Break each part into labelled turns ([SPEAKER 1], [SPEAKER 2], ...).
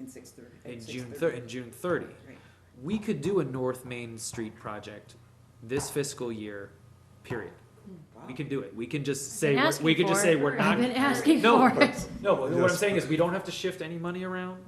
[SPEAKER 1] in six thirty.
[SPEAKER 2] in June thir- in June thirty.
[SPEAKER 1] Right.
[SPEAKER 2] We could do a North Main Street project this fiscal year, period. We can do it. We can just say,
[SPEAKER 3] been
[SPEAKER 2] we're- we
[SPEAKER 3] asking
[SPEAKER 2] could just
[SPEAKER 3] for
[SPEAKER 2] say
[SPEAKER 3] it.
[SPEAKER 2] we're not.
[SPEAKER 3] I've been asking
[SPEAKER 2] No,
[SPEAKER 3] for it.
[SPEAKER 2] No, but what I'm
[SPEAKER 4] Yes.
[SPEAKER 2] saying is we don't have to shift any money around.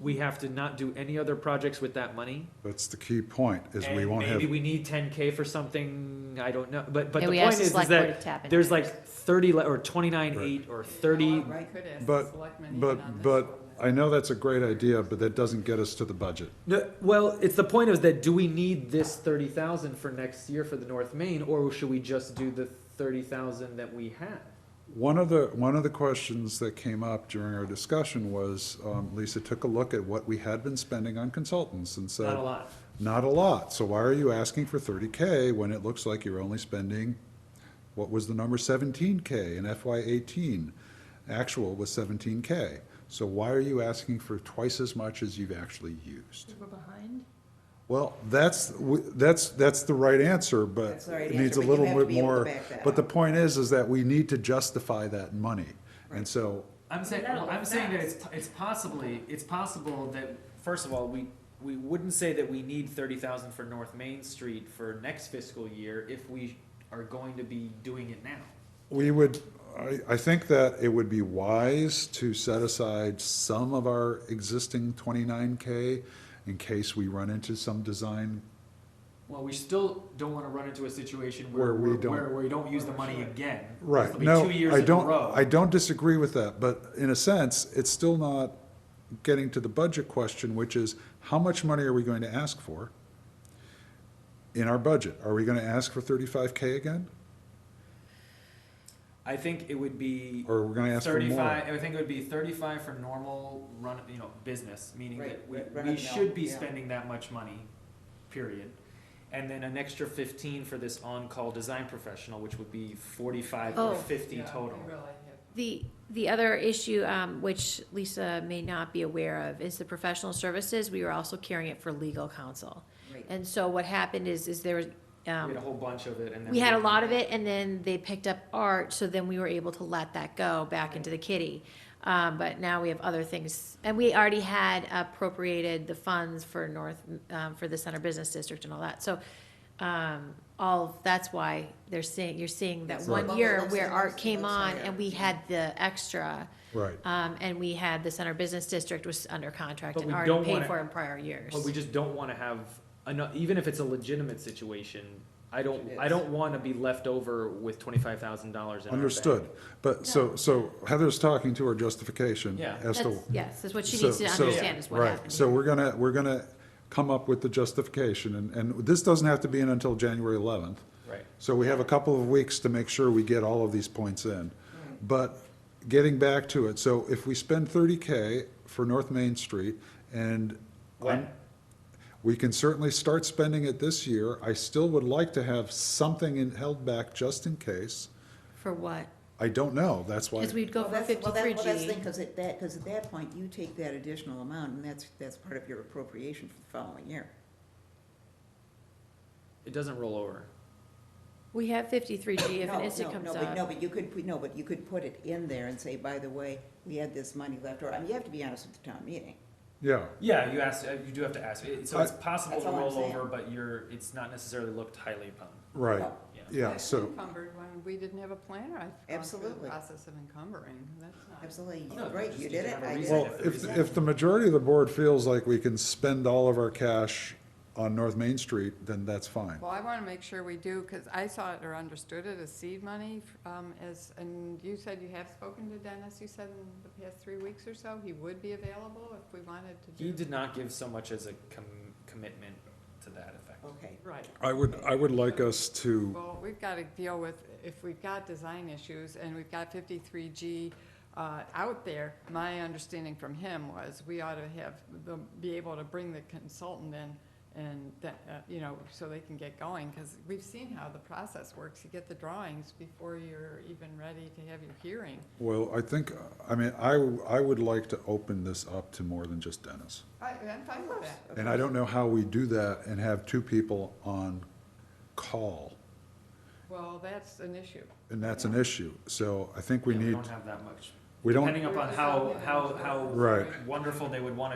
[SPEAKER 2] We have to not do any other projects with that money.
[SPEAKER 4] That's the key point, is we
[SPEAKER 2] And
[SPEAKER 4] won't have,
[SPEAKER 2] Maybe we need ten K for something, I don't know, but, but
[SPEAKER 3] Yeah,
[SPEAKER 2] the
[SPEAKER 3] we
[SPEAKER 2] point
[SPEAKER 3] asked the
[SPEAKER 2] is, is
[SPEAKER 3] select board
[SPEAKER 2] that
[SPEAKER 3] to tap into
[SPEAKER 2] there's
[SPEAKER 3] that.
[SPEAKER 2] like thirty, le- or twenty-nine,
[SPEAKER 4] Right.
[SPEAKER 2] eight, or thirty.
[SPEAKER 1] Right.
[SPEAKER 5] Could ask the
[SPEAKER 4] but,
[SPEAKER 5] selectmen even on
[SPEAKER 4] but,
[SPEAKER 5] this
[SPEAKER 4] but
[SPEAKER 5] one.
[SPEAKER 4] I know that's a great idea, but that doesn't get us to the budget.
[SPEAKER 2] No, well, it's the point is that do we need this thirty thousand for next year for the North Main, or should we just do the thirty thousand that we have?
[SPEAKER 4] One of the, one of the questions that came up during our discussion was, um, Lisa took a look at what we had been spending on consultants and said.
[SPEAKER 2] Not a lot.
[SPEAKER 4] Not a lot, so why are you asking for thirty K when it looks like you're only spending, what was the number, seventeen K in FY eighteen? Actual was seventeen K, so why are you asking for twice as much as you've actually used?
[SPEAKER 3] We're behind?
[SPEAKER 4] Well, that's, w- that's, that's the right answer,
[SPEAKER 1] That's the
[SPEAKER 4] but
[SPEAKER 1] right
[SPEAKER 4] it needs
[SPEAKER 1] answer, but
[SPEAKER 4] a
[SPEAKER 1] you
[SPEAKER 4] little
[SPEAKER 1] have to
[SPEAKER 4] bit
[SPEAKER 1] be able to
[SPEAKER 4] more.
[SPEAKER 1] back that
[SPEAKER 4] But the
[SPEAKER 1] up.
[SPEAKER 4] point is, is that we need to justify that money, and so,
[SPEAKER 2] I'm saying,
[SPEAKER 5] That'll
[SPEAKER 2] I'm
[SPEAKER 5] affect.
[SPEAKER 2] saying that it's, it's possibly, it's possible that, first of all, we, we wouldn't say that we need thirty thousand for North Main Street for next fiscal year if we are going to be doing it now.
[SPEAKER 4] We would, I, I think that it would be wise to set aside some of our existing twenty-nine K in case we run into some design,
[SPEAKER 2] Well, we still don't wanna run into a situation
[SPEAKER 4] Where
[SPEAKER 2] where,
[SPEAKER 4] we
[SPEAKER 2] where,
[SPEAKER 4] don't-
[SPEAKER 2] where we don't use the money again.
[SPEAKER 4] right,
[SPEAKER 2] It'll be
[SPEAKER 4] no,
[SPEAKER 2] two years
[SPEAKER 4] I
[SPEAKER 2] in a
[SPEAKER 4] don't,
[SPEAKER 2] row.
[SPEAKER 4] I don't disagree with that, but in a sense, it's still not getting to the budget question, which is, how much money are we going to ask for in our budget? Are we gonna ask for thirty-five K again,
[SPEAKER 2] I think it would be
[SPEAKER 4] or are we gonna ask for more?
[SPEAKER 2] thirty-five, I think it would be thirty-five for normal run, you know, business, meaning that
[SPEAKER 1] Right,
[SPEAKER 2] we,
[SPEAKER 1] right, run
[SPEAKER 2] we
[SPEAKER 1] of the mill,
[SPEAKER 2] should be
[SPEAKER 1] yeah.
[SPEAKER 2] spending that much money, period. And then an extra fifteen for this on-call design professional, which would be forty-five or
[SPEAKER 3] Oh.
[SPEAKER 2] fifty
[SPEAKER 5] Yeah,
[SPEAKER 2] total.
[SPEAKER 5] we really have-
[SPEAKER 3] The, the other issue, um, which Lisa may not be aware of, is the professional services, we were also carrying it for legal counsel.
[SPEAKER 1] Right.
[SPEAKER 3] And so what happened is, is there was,
[SPEAKER 2] We had a
[SPEAKER 3] um,
[SPEAKER 2] whole bunch of it and then.
[SPEAKER 3] we had a lot of it, and then they picked up art, so then we were able to let that go back into the kitty. Um, but now we have other things, and we already had appropriated the funds for North, um, for the Center Business District and all that, so, um, all, that's why they're seeing, you're seeing that
[SPEAKER 1] It's
[SPEAKER 4] a
[SPEAKER 3] one
[SPEAKER 1] bubble
[SPEAKER 3] year
[SPEAKER 1] that's
[SPEAKER 3] where
[SPEAKER 1] in
[SPEAKER 3] art
[SPEAKER 1] those-
[SPEAKER 3] came
[SPEAKER 1] those
[SPEAKER 3] on,
[SPEAKER 1] higher.
[SPEAKER 3] and we had the extra,
[SPEAKER 4] Right,
[SPEAKER 3] um, and we had the Center Business District was under contract
[SPEAKER 2] But
[SPEAKER 3] and
[SPEAKER 2] we don't
[SPEAKER 3] already paid
[SPEAKER 2] wanna-
[SPEAKER 3] for in prior years.
[SPEAKER 2] But we just don't wanna have, enough, even if it's a legitimate situation, I don't,
[SPEAKER 1] It
[SPEAKER 2] I
[SPEAKER 1] is.
[SPEAKER 2] don't wanna be left over with twenty-five thousand dollars in our bank.
[SPEAKER 4] understood, but, so, so Heather's talking to her justification
[SPEAKER 2] Yeah.
[SPEAKER 4] as to
[SPEAKER 3] That's- Yes, that's what she
[SPEAKER 4] So-
[SPEAKER 3] needs to
[SPEAKER 4] so-
[SPEAKER 3] understand is what
[SPEAKER 4] Right,
[SPEAKER 3] happened.
[SPEAKER 4] so we're gonna, we're gonna come up with the justification, and, and this doesn't have to be in until January eleventh.
[SPEAKER 2] Right.
[SPEAKER 4] So we have a couple of weeks to make sure we get all of these points in. But getting back to it, so if we spend thirty K for North Main Street, and
[SPEAKER 2] When?
[SPEAKER 4] we can certainly start spending it this year, I still would like to have something in, held back just in case.
[SPEAKER 3] For what?
[SPEAKER 4] I don't know, that's why,
[SPEAKER 3] Because we'd go
[SPEAKER 1] Well,
[SPEAKER 3] for
[SPEAKER 1] that's- well, that-
[SPEAKER 3] fifty-three
[SPEAKER 1] Well, that's the
[SPEAKER 3] G.
[SPEAKER 1] thing, because at that, because at that point, you take that additional amount, and that's, that's part of your appropriation for the following year.
[SPEAKER 2] It doesn't roll over.
[SPEAKER 3] We have fifty-three G if
[SPEAKER 1] No,
[SPEAKER 3] an instant
[SPEAKER 1] no,
[SPEAKER 3] comes
[SPEAKER 1] no, but- No,
[SPEAKER 3] up.
[SPEAKER 1] but you could, put- no, but you could put it in there and say, by the way, we had this money left, or, I mean, you have to be honest with the town meeting.
[SPEAKER 4] yeah,
[SPEAKER 2] Yeah, you asked, uh, you do have to ask, It- so
[SPEAKER 4] I-
[SPEAKER 2] it's possible
[SPEAKER 1] That's
[SPEAKER 2] to
[SPEAKER 1] all I'm
[SPEAKER 2] roll
[SPEAKER 1] saying.
[SPEAKER 2] over, but you're, it's not necessarily looked highly upon,
[SPEAKER 4] right,
[SPEAKER 1] No.
[SPEAKER 2] yeah.
[SPEAKER 4] yeah,
[SPEAKER 5] That's
[SPEAKER 4] so,
[SPEAKER 5] Encumbered when we didn't have a planner, I've gone through the
[SPEAKER 1] Absolutely.
[SPEAKER 5] process of encumbering, that's not.
[SPEAKER 1] Absolutely,
[SPEAKER 2] No,
[SPEAKER 1] right,
[SPEAKER 2] just
[SPEAKER 1] you
[SPEAKER 2] need
[SPEAKER 1] did
[SPEAKER 2] to
[SPEAKER 1] it,
[SPEAKER 2] have a
[SPEAKER 1] I did
[SPEAKER 2] reason
[SPEAKER 4] Well,
[SPEAKER 1] it.
[SPEAKER 4] if, if the majority of the board feels like we can spend all of our cash on North Main Street, then that's fine.
[SPEAKER 5] Well, I wanna make sure we do, cause I saw it or understood it as seed money, f- um, as, and you said you have spoken to Dennis, you said in the past three weeks or so, he would be available if we wanted to do.
[SPEAKER 2] He did not give so much as a com- commitment to that effect.
[SPEAKER 1] Okay,
[SPEAKER 5] Right.
[SPEAKER 4] I would, I would like us to,
[SPEAKER 5] Well, we've got to deal with, if we've got design issues and we've got fifty-three G uh, out there, my understanding from him was we ought to have, the- be able to bring the consultant in and, that, uh, you know, so they can get going, because we've seen how the process works. You get the drawings before you're even ready to have your hearing.
[SPEAKER 4] well, I think, I mean, I, I would like to open this up to more than just Dennis.
[SPEAKER 5] I, I'm fine with that.
[SPEAKER 4] And I don't know how we do that and have two people on call,
[SPEAKER 5] Well, that's an issue.
[SPEAKER 4] and that's an issue. So I think we
[SPEAKER 2] Yeah, We
[SPEAKER 4] need,
[SPEAKER 2] don't have that much,
[SPEAKER 4] we don't,
[SPEAKER 2] depending upon how, how, how
[SPEAKER 4] Right.
[SPEAKER 2] wonderful they would want